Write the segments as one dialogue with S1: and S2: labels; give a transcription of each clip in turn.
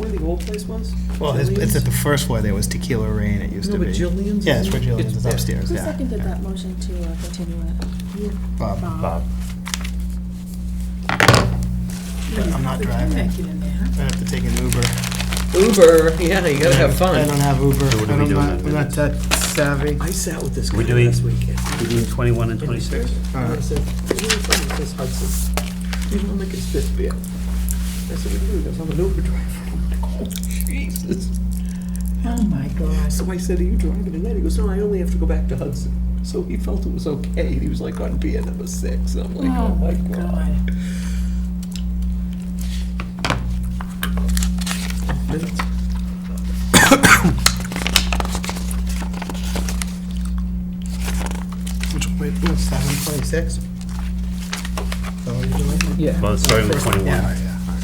S1: the old place was?
S2: Well, it's, it's at the
S1: Jillian's?
S2: first floor, there was Tequila Rain, it used
S1: No,
S2: to
S1: but
S2: be.
S1: Jillian's?
S2: Yeah, it's where Jillian's
S1: It's-
S2: is
S1: yeah.
S2: upstairs,
S3: Who
S2: yeah.
S3: seconded
S2: yeah.
S3: that motion to uh, continue it?
S2: Bob.
S4: Bob.
S2: But I'm not driving. I have to take an Uber.
S1: Uber, yeah, you gotta have
S2: I don't
S1: fun.
S2: have Uber.
S4: So what do
S2: I
S4: we
S2: don't-
S4: do in
S2: I'm
S4: that
S2: not that savvy.
S1: I sat with this
S4: We
S1: guy
S4: doing-
S1: last weekend.
S4: We're doing 21 and 26?
S1: And I said, "What are you from?" He says, Hudson. He's from Lincoln's beer. I said, what do you do? He goes, I'm an Uber driver. I'm like, oh, Jesus.
S5: Oh, my gosh.
S1: So I said, are you driving tonight? He goes, no, I only have to go back to Hudson. So he felt it was okay. He was like on beer number six. I'm like, oh my God. Minutes.
S2: Which, wait, what's seven twenty-six?
S1: Yeah.
S4: Well, it's starting with 21.
S2: Yeah, yeah. all right.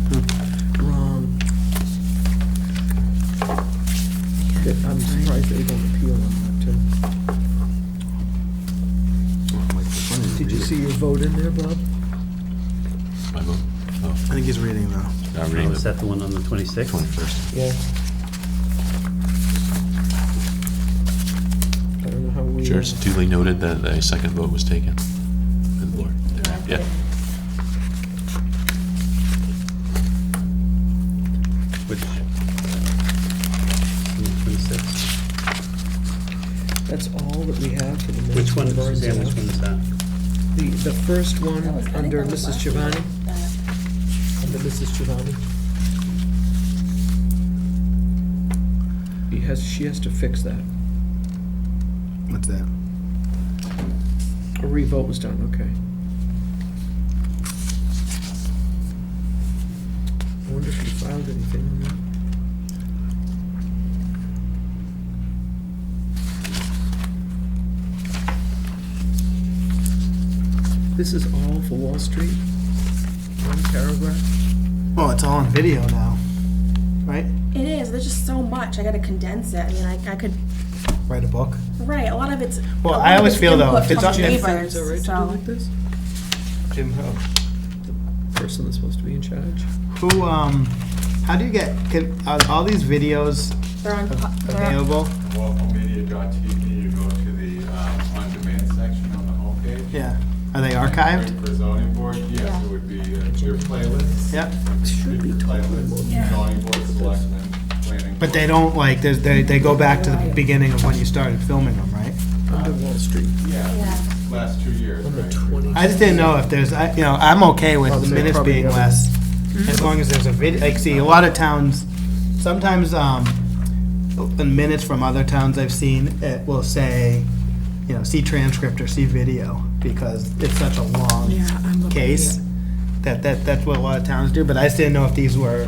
S1: Wrong. That- I'm surprised they don't appeal on that too. Did you see your vote in there, Bob?
S6: My vote. Oh,
S2: I think he's reading though.
S6: Now I'm
S4: Oh,
S6: reading
S4: Is
S6: the
S4: that the one on the 26th?
S6: twenty-first.
S1: Yeah. I don't know how we.
S6: Chair's duly noted that a second vote was taken. Good lord. Yeah.
S4: Which? 26.
S1: That's all that we have for the minutes.
S4: Which one,
S1: We've already
S4: Suzanne, which
S1: done.
S4: one is that?
S1: The, the first one,
S3: That was- I think
S1: under
S3: that was
S1: Mrs.
S3: last
S1: Giovanni,
S3: Uh,
S1: under Mrs. Giovanni. He has, she has to fix that.
S2: What's that?
S1: A revote was done, okay. I wonder if he filed anything on that. This is all for Wall Street? One paragraph?
S2: Well, it's all on video now, right?
S3: It is, there's just so much, I gotta condense it, I mean, I, I could,
S2: Write a book.
S3: right, a lot of it's. a
S2: Well,
S3: lot
S2: I
S3: of
S2: always feel though,
S3: input
S2: if it's
S3: from
S2: on- if-
S1: Is
S3: neighbors,
S1: that right to do
S3: so-
S1: like this?
S2: Jim, who?
S1: Person that's supposed to be in charge?
S2: Who, um, how do you get, can, are all these videos
S3: They're on,
S2: av-
S3: they're on-
S2: available?
S7: localmedia.tv, you go to the um, on-demand section on the homepage.
S2: Yeah. Are they archived?
S7: For zoning board, yes, it would be uh, your playlists.
S2: Yep.
S1: Should be
S7: Your playlists, zoning board, selectmen, planning.
S2: But they
S7: board.
S2: don't, like, there's, they, they go back to the beginning of when you started filming them, right?
S1: under Wall Street.
S7: Yeah,
S3: yeah.
S7: last two years,
S1: On the
S7: right?
S1: 20.
S2: I just didn't know if there's, I, you know, I'm okay
S1: Oh,
S2: with the minutes being less,
S5: Mm-hmm.
S2: as long as there's a video, like, see, a lot of towns, sometimes, um, the minutes from other towns I've seen, it will say, you know, see transcript or see video, because it's such a long
S5: Yeah, I'm looking.
S2: case, that, that, that's what a lot of towns do, but I just didn't know if these were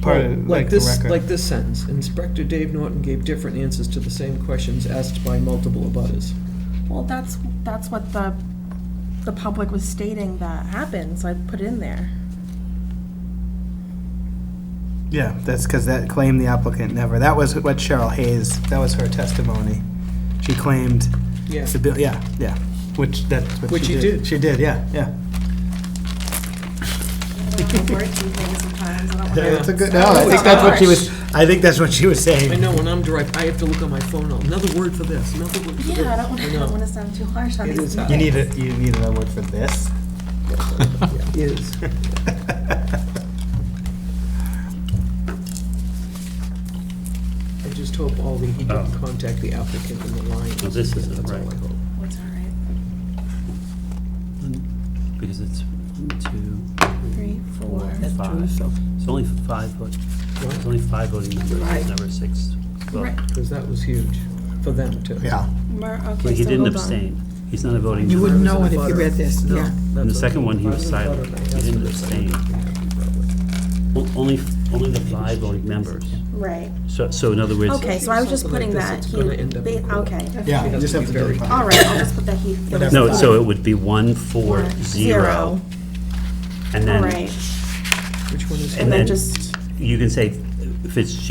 S2: part of, like, the
S1: this, like
S2: record.
S1: this sentence, Inspector Dave Norton gave different answers to the same questions asked by multiple abutters.
S3: Well, that's, that's what the, the public was stating that happened, so I put it in there.
S2: Yeah, that's because that claimed the applicant never, that was what Cheryl Hayes, that was her testimony. She claimed
S1: Yeah.
S2: The bill, yeah, yeah, which, that's what
S1: Which
S2: she
S1: you
S2: did.
S1: did.
S2: She did, yeah, yeah.
S3: I don't wanna word these things sometimes, I don't wanna-
S2: That's a good, no, I think that's what she was, I think that's what she was
S1: I
S2: saying.
S1: know, when I'm direct, I have to look on my phone, oh, another word for this, another word for this.
S3: Yeah, I don't wanna, I don't
S1: know.
S3: wanna sound too harsh on
S1: It
S3: these
S1: is hard.
S2: You
S3: things.
S2: need a, you need another word for this?
S1: Is. I just hope all the, he didn't
S4: Oh.
S1: contact the applicant in the line.
S4: No, this isn't
S1: That's all
S4: right.
S1: I hope.
S3: It's all right.
S4: Because it's one, two,
S3: Three, four.
S4: five. It's only five, vote- it's only five voting members, there's never six. vote.
S3: Right,
S1: Because that was huge for them too.
S2: Yeah.
S3: Mer,
S4: But
S3: okay,
S4: he
S3: so
S4: didn't
S3: hold on.
S4: abstain. He's not a voting
S5: You
S4: member.
S5: wouldn't know it if you read this,
S1: No,
S5: yeah.
S4: In the
S1: that's
S4: second
S1: okay.
S4: one, he was
S1: Five voted,
S4: silent.
S1: right?
S4: He
S1: That's
S4: didn't
S1: what it said.
S4: abstain. O- Only, only the five voting members.
S3: Right,
S4: So, so in other words,
S3: okay, so I was just
S1: Something like
S3: putting
S1: this,
S3: that,
S1: it's
S3: he,
S1: gonna end up in
S3: they-
S1: court.
S3: okay.
S2: Yeah,
S1: It
S2: you
S1: has
S2: just
S1: to
S2: have to
S1: be very
S2: do
S3: All right, I'll just put that he. there was
S4: no,
S3: five.
S4: so it would be one, four, zero, and
S3: All
S4: then,
S3: right,
S1: Which one is?
S3: and
S4: and
S3: then
S4: then
S3: just.
S4: you can say Fitzgerald